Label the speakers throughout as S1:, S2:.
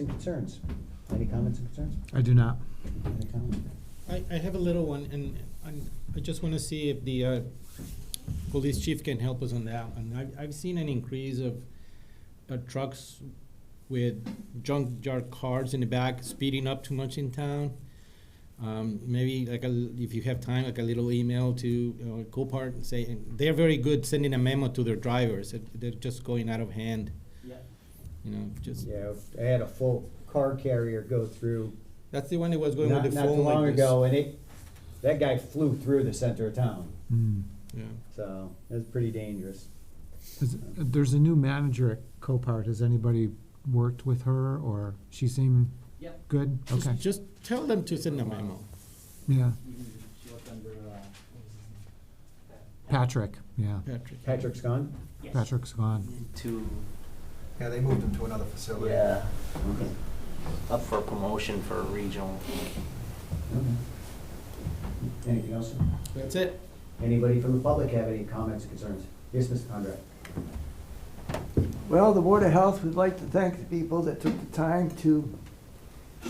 S1: Any concerns? Any comments and concerns?
S2: I do not.
S1: Any comments?
S3: I, I have a little one, and, and I just wanna see if the, uh, police chief can help us on that. And I've, I've seen an increase of, uh, trucks with junkyard cars in the back speeding up too much in town. Um, maybe like a, l- if you have time, like a little email to, uh, Copart and say, and they're very good sending a memo to their drivers, that they're just going out of hand. You know, just,
S4: Yeah, I had a full car carrier go through
S3: that's the one that was going
S4: not,
S3: with the
S4: not too
S3: phone
S4: long
S3: like this.
S4: ago, and it, that guy flew through the center of town,
S2: Hmm.
S3: Yeah.
S4: so it was pretty dangerous.
S2: Is- There's a new manager at Copart. Has anybody worked with her or she seem
S5: Yep.
S2: good?
S3: Just-
S2: Okay,
S3: Just tell them to send a memo.
S2: yeah.
S5: Even if she was under, uh, what was his name?
S2: Patrick, yeah.
S3: Patrick.
S4: Patrick's gone?
S5: Yes.
S2: Patrick's gone.
S6: to,
S7: Yeah, they moved him to another facility.
S6: yeah,
S4: Okay.
S6: up for promotion for regional.
S4: okay. Anything else?
S3: That's it.
S4: Anybody from the public have any comments or concerns? Yes, Mr. Conrad?
S8: Well, the Board of Health would like to thank the people that took the time to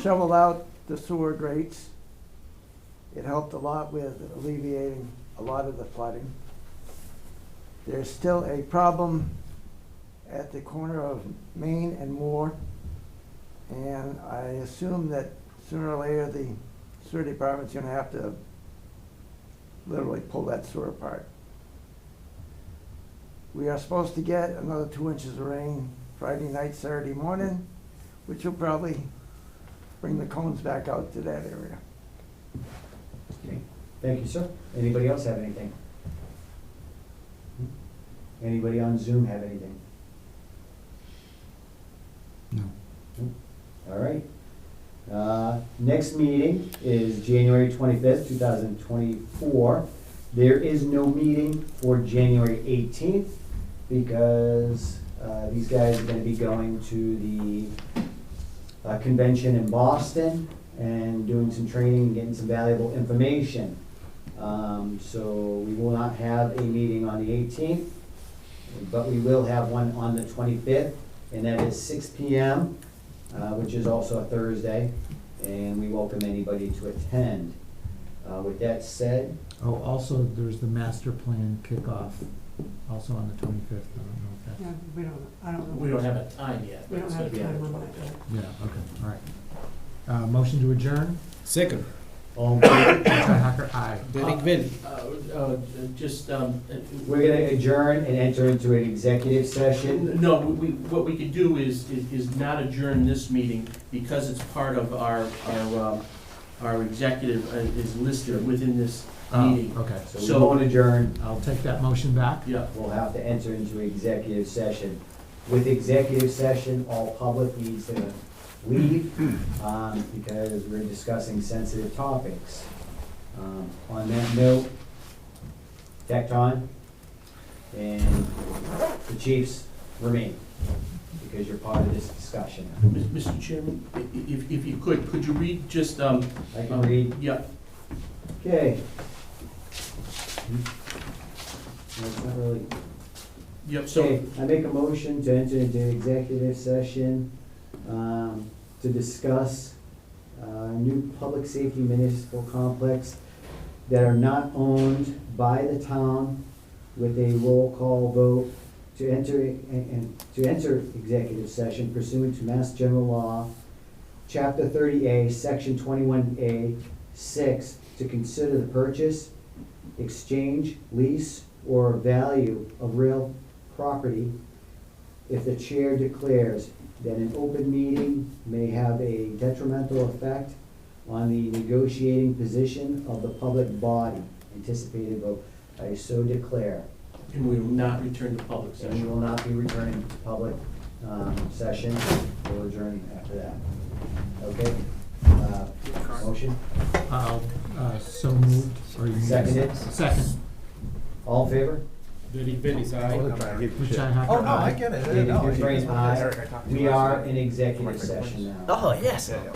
S8: shovel out the sewer grates. It helped a lot with alleviating a lot of the flooding. There's still a problem at the corner of Main and Moore. And I assume that sooner or later, the sewer department's gonna have to literally pull that sewer apart. We are supposed to get another two inches of rain Friday night, Saturday morning, which will probably bring the cones back out to that area.
S4: Okay. Thank you, sir. Anybody else have anything? Hmm? Anybody on Zoom have anything?
S2: No.
S4: All right. Uh, Next meeting is January twenty-fifth, two thousand twenty-four. There is no meeting for January eighteenth because uh, these guys are gonna be going to the uh, convention in Boston and doing some training and getting some valuable information. Um, So we will not have a meeting on the eighteenth, but we will have one on the twenty-fifth, and that is six P M uh, which is also a Thursday, and we welcome anybody to attend. Uh, With that said,
S2: Oh, also, there's the master plan kickoff, also on the twenty-fifth. I don't know if that's,
S9: Yeah, we don't, I don't know.
S5: We don't have a time yet. but
S9: We don't
S5: it's
S9: have
S5: gonna be
S9: time
S5: after
S9: on
S5: 25.
S9: that.
S2: yeah, okay, all right. Uh, motion to adjourn?
S3: Second,
S4: all in favor?
S2: John Hacker, aye.
S3: Derek Bell.
S5: Uh, uh, just, um, uh,
S4: we're gonna adjourn and enter into an executive session.
S5: No, we, we- what we could do is, is- is not adjourn this meeting because it's part of our, our, um, our executive uh, is listed within this
S2: Oh,
S5: meeting.
S2: okay.
S4: So we
S5: So-
S4: won't adjourn,
S2: I'll take that motion back.
S5: Yeah,
S4: we'll have to enter into executive session. With executive session, all public needs to leave, um, because we're discussing sensitive topics. Um, On that note, Tecton and the Chiefs remain, because you're part of this discussion.
S5: Mis- Mr. Chairman, i- i- if, if you could, could you read just, um,
S4: I can
S5: um,
S4: read,
S5: Yeah,
S4: okay. Hmm? No, it's not really.
S5: yeah, so,
S4: Okay, I make a motion to enter into executive session um, to discuss uh, new public safety municipal complex that are not owned by the town with a roll call vote to enter, and- and, to enter executive session pursuant to Mass General Law, Chapter thirty A, Section twenty-one A, six, to consider the purchase, exchange, lease, or value of real property if the chair declares that an open meeting may have a detrimental effect on the negotiating position of the public body, anticipated vote, I so declare.
S5: and we will not return to public
S4: And we
S5: session.
S4: will not be returning to public, um, session, we'll adjourn after that. Okay? Uh, Motion,
S2: I'll, uh, so moved, or you need?
S4: Seconded.
S2: Second.
S4: all in favor?
S3: Derek Bell is aye.
S2: John Hacker,
S7: Oh, no, I
S2: aye.
S7: get it.
S4: David
S7: No, I-
S4: Dufresne, aye.
S7: I talked to you
S4: We
S7: last
S4: are
S7: night.
S4: in executive session now.
S6: yes.
S7: Yeah, yeah.